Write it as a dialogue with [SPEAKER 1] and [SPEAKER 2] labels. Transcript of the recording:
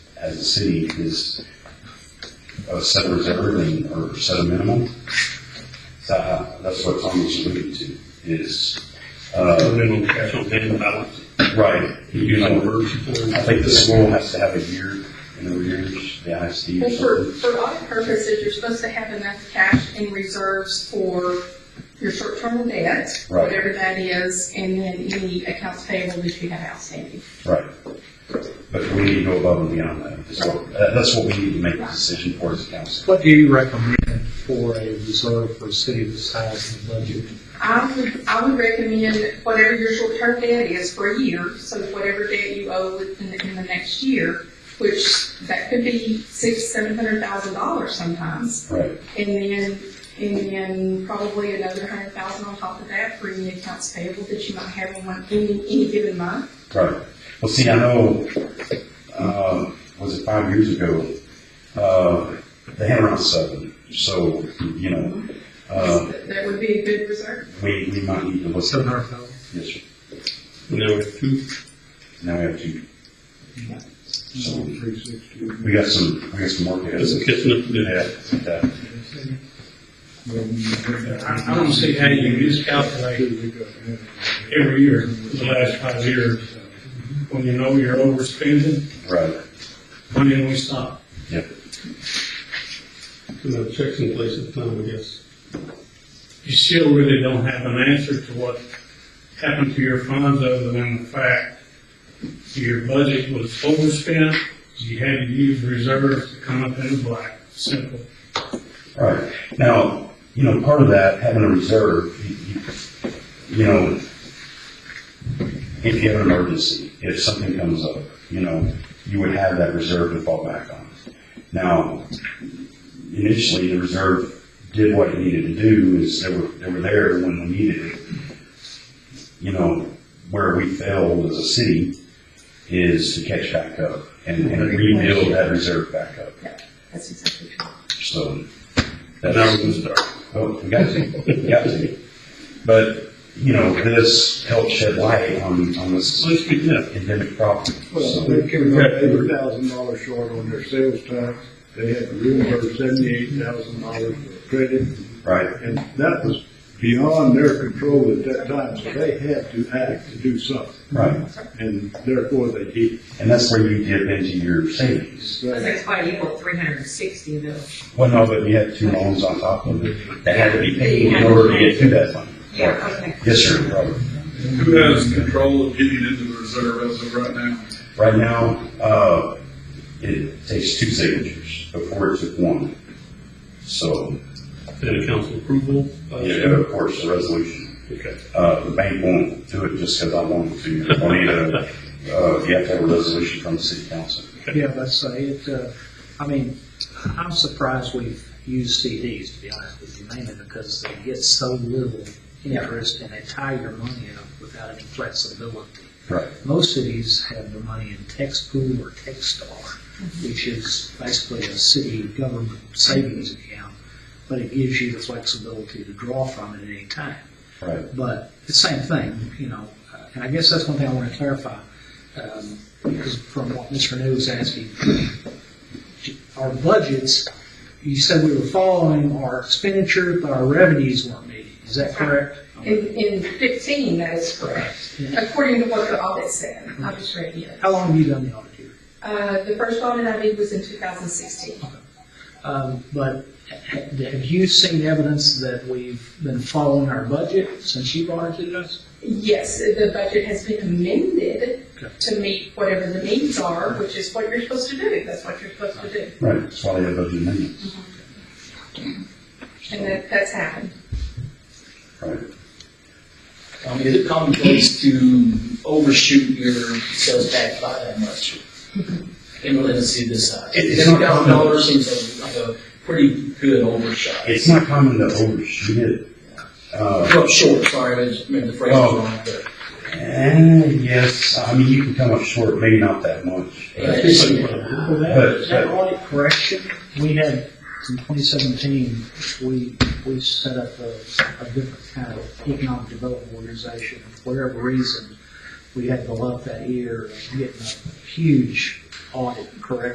[SPEAKER 1] as a city is a set reserve and, or set a minimum. So, uh, that's what Tom was alluding to, is, uh,
[SPEAKER 2] minimum cash on hand balance,
[SPEAKER 1] right.
[SPEAKER 2] you use an emergency fund.
[SPEAKER 1] I think the school has to have a year, in know, years, the ISD or
[SPEAKER 3] Well, for,
[SPEAKER 1] something.
[SPEAKER 3] for audit purposes, you're supposed to have enough cash in reserves for your short-term debt,
[SPEAKER 1] Right.
[SPEAKER 3] whatever that is, and then any accounts payable that you have outstanding.
[SPEAKER 1] Right. But we need to go above and beyond that. That's what, that- that's what we need to make a decision for as a council.
[SPEAKER 4] What do you recommend for a reserve for a city this size and budget?
[SPEAKER 3] I would, I would recommend whatever your short-term debt is for a year, so whatever debt you owe in, in the next year, which that could be six, seven hundred thousand dollars sometimes,
[SPEAKER 1] Right.
[SPEAKER 3] and then, and then probably another hundred thousand on top of that for any accounts payable that you might have in one, any, any given month.
[SPEAKER 1] Right. Well, see, I know, um, was it five years ago? Uh, they had around seven. So, you know, uh,
[SPEAKER 3] That would be a good reserve.
[SPEAKER 1] we, we might need to look.
[SPEAKER 4] Seven hundred thousand?
[SPEAKER 1] Yes, sir.
[SPEAKER 2] And then we have two,
[SPEAKER 1] Now we have to, So-
[SPEAKER 4] Three sixty.
[SPEAKER 1] we got some, we got some work ahead.
[SPEAKER 2] that's catching up to do.
[SPEAKER 1] Yeah, yeah.
[SPEAKER 5] I, I don't see how you miscalculate every year, for the last five years, when you know you're overspending,
[SPEAKER 1] Right.
[SPEAKER 5] when then we stop.
[SPEAKER 2] Because our checks in place at the time, I guess.
[SPEAKER 5] You still really don't have an answer to what happened to your funds, other than the fact your budget was overspent, you had to use reserves to come up in the black, simple.
[SPEAKER 1] Right. Now, you know, part of that, having a reserve, you- you- you know, if you have an emergency, if something comes up, you know, you would have that reserve to fall back on. Now, initially, the reserve did what it needed to do, is they were, they were there when we needed it. You know, where we failed as a city is to catch back up and and rebuild that reserve back up,
[SPEAKER 3] That's exactly true.
[SPEAKER 1] so.
[SPEAKER 2] And
[SPEAKER 1] that's-
[SPEAKER 2] now we're gonna start.
[SPEAKER 1] Oh, we got to, we got to. But, you know, this helps shed light on, on this
[SPEAKER 2] So let's begin.
[SPEAKER 1] endemic problem.
[SPEAKER 6] Well,
[SPEAKER 1] So,
[SPEAKER 6] they came up eighty thousand dollars short on their sales tax. They had to reimburse seventy-eight thousand dollars for credit,
[SPEAKER 1] Right,
[SPEAKER 6] and that was beyond their control at that time, so they had to act to do something,
[SPEAKER 1] right.
[SPEAKER 6] and therefore they did.
[SPEAKER 1] And that's where you dip into your savings.
[SPEAKER 7] That's why you want three hundred and sixty though.
[SPEAKER 1] Well, no, but you had two loans on top of it that had to be paid in order to get to that fund.
[SPEAKER 7] okay.
[SPEAKER 1] Yes, sir, Robert.
[SPEAKER 8] Who has control of getting into the reserve as of right now?
[SPEAKER 1] Right now, uh, it takes two signatures before it took one. So,
[SPEAKER 2] And a council approval. uh,
[SPEAKER 1] yeah, of course, the resolution.
[SPEAKER 2] Okay.
[SPEAKER 1] Uh, the bank won't do it just because I want them to. I need a, uh, you have to have a resolution from the city council.
[SPEAKER 4] Yeah, let's say it, uh, I mean, I'm surprised we've used CDs, to be honest with you, mainly because they get so little interest and they tie your money up without any flexibility.
[SPEAKER 1] Right.
[SPEAKER 4] Most cities have their money in tax pool or Techstar, which is basically a city government savings account, but it gives you the flexibility to draw from it at any time.
[SPEAKER 1] Right.
[SPEAKER 4] But it's the same thing, you know, uh, and I guess that's one thing I want to clarify, um, because from what Mr. New was asking, our budgets, you said we were following our expenditure, but our revenues weren't meeting, is that correct?
[SPEAKER 3] In, in fifteen, that is correct, according to what the audit said. I just read it.
[SPEAKER 4] How long have you done the audit here?
[SPEAKER 3] Uh, the first audit I did was in two thousand sixteen.
[SPEAKER 4] Um, But ha- have you seen evidence that we've been following our budget since you've audited us?
[SPEAKER 3] Yes, the budget has been amended
[SPEAKER 4] Okay.
[SPEAKER 3] to meet whatever the needs are, which is what you're supposed to do. That's what you're supposed to do.
[SPEAKER 1] Right. That's why they have those amendments.
[SPEAKER 3] And that, that's happened.
[SPEAKER 1] Right.
[SPEAKER 9] Um, is it commonplace to overshoot your sales tax by that much? In a city this size?
[SPEAKER 1] It- it's not
[SPEAKER 9] Fifty thousand
[SPEAKER 1] common.
[SPEAKER 9] dollars seems like a pretty good overshot.
[SPEAKER 1] It's not common to overshoot it. Uh,
[SPEAKER 9] Well, short, sorry, I just meant the phrase was wrong, but.
[SPEAKER 1] eh, yes, I mean, you can come up short, maybe not that much.
[SPEAKER 9] Yeah, it's-
[SPEAKER 4] Well,
[SPEAKER 1] But-
[SPEAKER 4] that, that audit correction, we had in 2017, we, we set up a, a different kind of economic development organization. For whatever reason, we had to go up that year and get a huge audit correction.